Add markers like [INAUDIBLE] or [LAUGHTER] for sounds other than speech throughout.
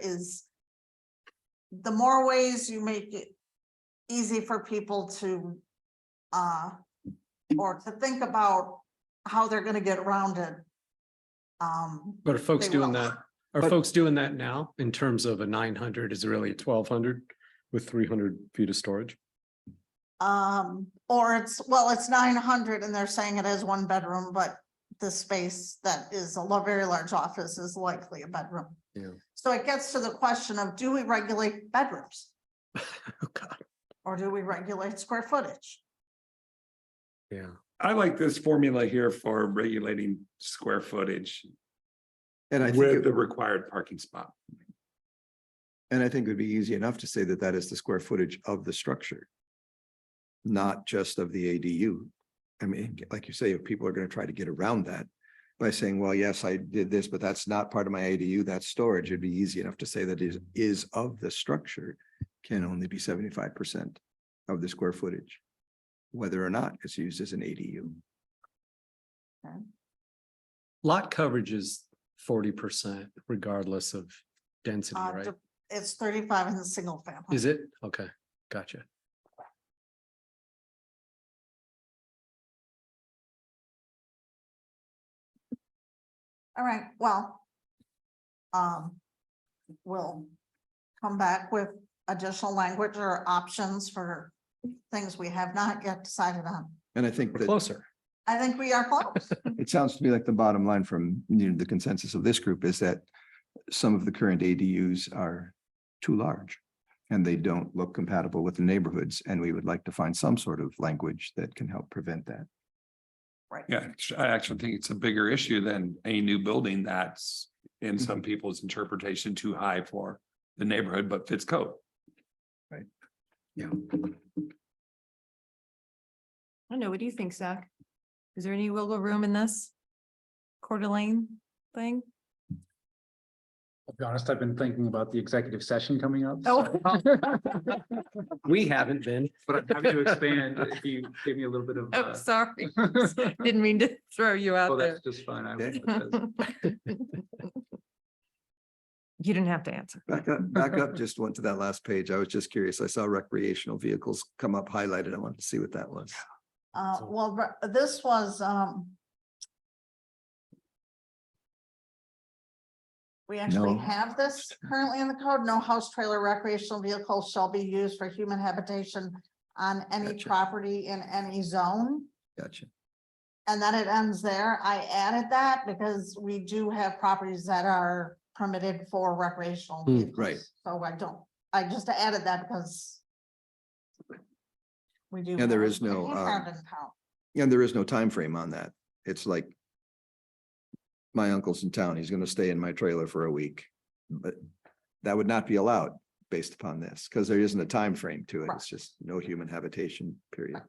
is the more ways you make it easy for people to uh, or to think about how they're gonna get around it. Um, But are folks They will. doing that, are But- folks doing that now in terms of a nine hundred is really a twelve hundred with three hundred feet of storage? um, or it's, well, it's nine hundred and they're saying it is one bedroom, but the space that is a lo- very large office is likely a bedroom. Yeah. So it gets to the question of, do we regulate bedrooms? [LAUGHS] Oh, God. Or do we regulate square footage? Yeah, I like this formula here for regulating square footage And I think, with the it- required parking spot. and I think it'd be easy enough to say that that is the square footage of the structure. Not just of the ADU. I mean, like you say, if people are gonna try to get around that by saying, well, yes, I did this, but that's not part of my ADU, that's storage, it'd be easy enough to say that is, is of the structure can only be seventy-five percent of the square footage, whether or not it's used as an ADU. lot coverage is forty percent regardless of density, Uh, right? de- It's thirty-five in the single family. Is it? Okay, gotcha. All right, well. Um, we'll come back with additional language or options for things we have not yet decided on. And I think We're that. closer. I think we are close. [LAUGHS] It sounds to me like the bottom line from, you know, the consensus of this group is that some of the current ADUs are too large. And they don't look compatible with the neighborhoods, and we would like to find some sort of language that can help prevent that. Yeah, I actually think it's a bigger issue than a new building that's in some people's interpretation too high for the neighborhood, but fits code. I don't know. What do you think, Zach? Is there any wiggle room in this Coeur d'Alene thing? I'll be honest, I've been thinking about the executive session coming up. Oh. [LAUGHS] so- We haven't been. But I'm happy to expand if you give me a little bit of. [LAUGHS] Oh, uh, [LAUGHS] sorry. Didn't mean to throw you Well, out there. [LAUGHS] that's just fine. I Okay. will- You didn't have to answer. Back up, back up just went to that last page. I was just curious. I saw recreational vehicles come up highlighted. I wanted to see what that was. Uh, So- well, but this was, um. We actually No. have this currently in the code, no house trailer recreational vehicle shall be used for human habitation on any Gotcha. property in any zone. Gotcha. And then it ends there. I added that because we do have properties that are permitted for recreational. Hmm, vehicles. right. So I don't, I just added that because. We do. Yeah, there have is no, a um, campground in town. And there is no time frame on that. It's like. My uncle's in town. He's gonna stay in my trailer for a week, but that would not be allowed based upon this, because there isn't a time frame to it. It's just no human habitation, period.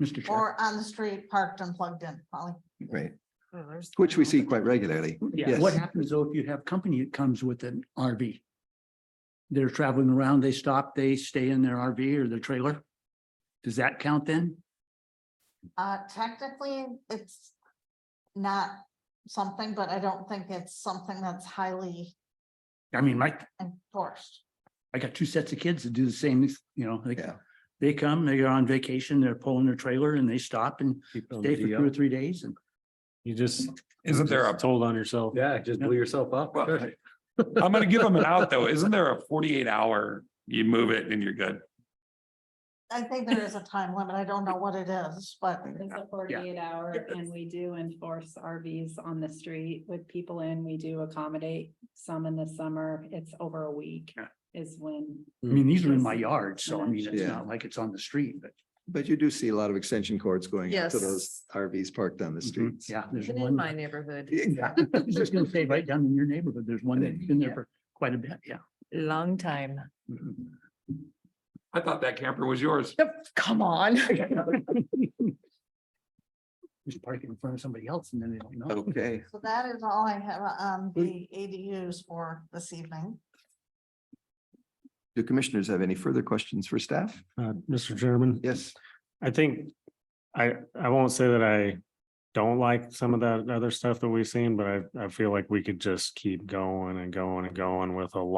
Mr. Chair. Or on the street parked and plugged in, probably. Right, Oh, there's which we that. see quite regularly. Yeah, what happens though if you have company that comes with an RV? They're traveling around, they stop, they stay in their RV or their trailer? Does that count then? Uh, technically, it's not something, but I don't think it's something that's highly I mean, my, enforced. I got two sets of kids that do the same, you know, they, Yeah. they come, they are on vacation, they're pulling their trailer and they stop and Keep on stay for the uh, two or up. three days and. You just. Isn't there a, Told on yourself. Yeah, just blew yourself up. Well, [LAUGHS] I'm gonna give them an out though. Isn't there a forty-eight hour, you move it and you're good? I think there is a time limit. I don't know what it is, but It's a forty-eight hour and we do enforce RVs on the street with people in. We do accommodate some in the summer. It's over a week Yeah. is when. I mean, these are in my Yes. yard, so I mean, it's Yeah. not like it's on the street, but. But you do see a lot of extension cords going out to those Yes. RVs parked on the streets. Mm-hmm. Yeah, there's Even in one. my [LAUGHS] I neighborhood, was Just gonna say, right down in your neighborhood, there's one that's been Yeah. there for quite a bit, yeah. long time. Mhm. I thought that camper was yours. Come [LAUGHS] on. [LAUGHS] Just park it in front of somebody else and then they don't know. Okay, so that is all I have on the ADUs for this evening. do commissioners have any further questions for staff? Uh, Mr. Chairman, Yes. I think I, I won't say that I don't like some of that other stuff that we've seen, but I, I feel like we could just keep going and going and going with a lot.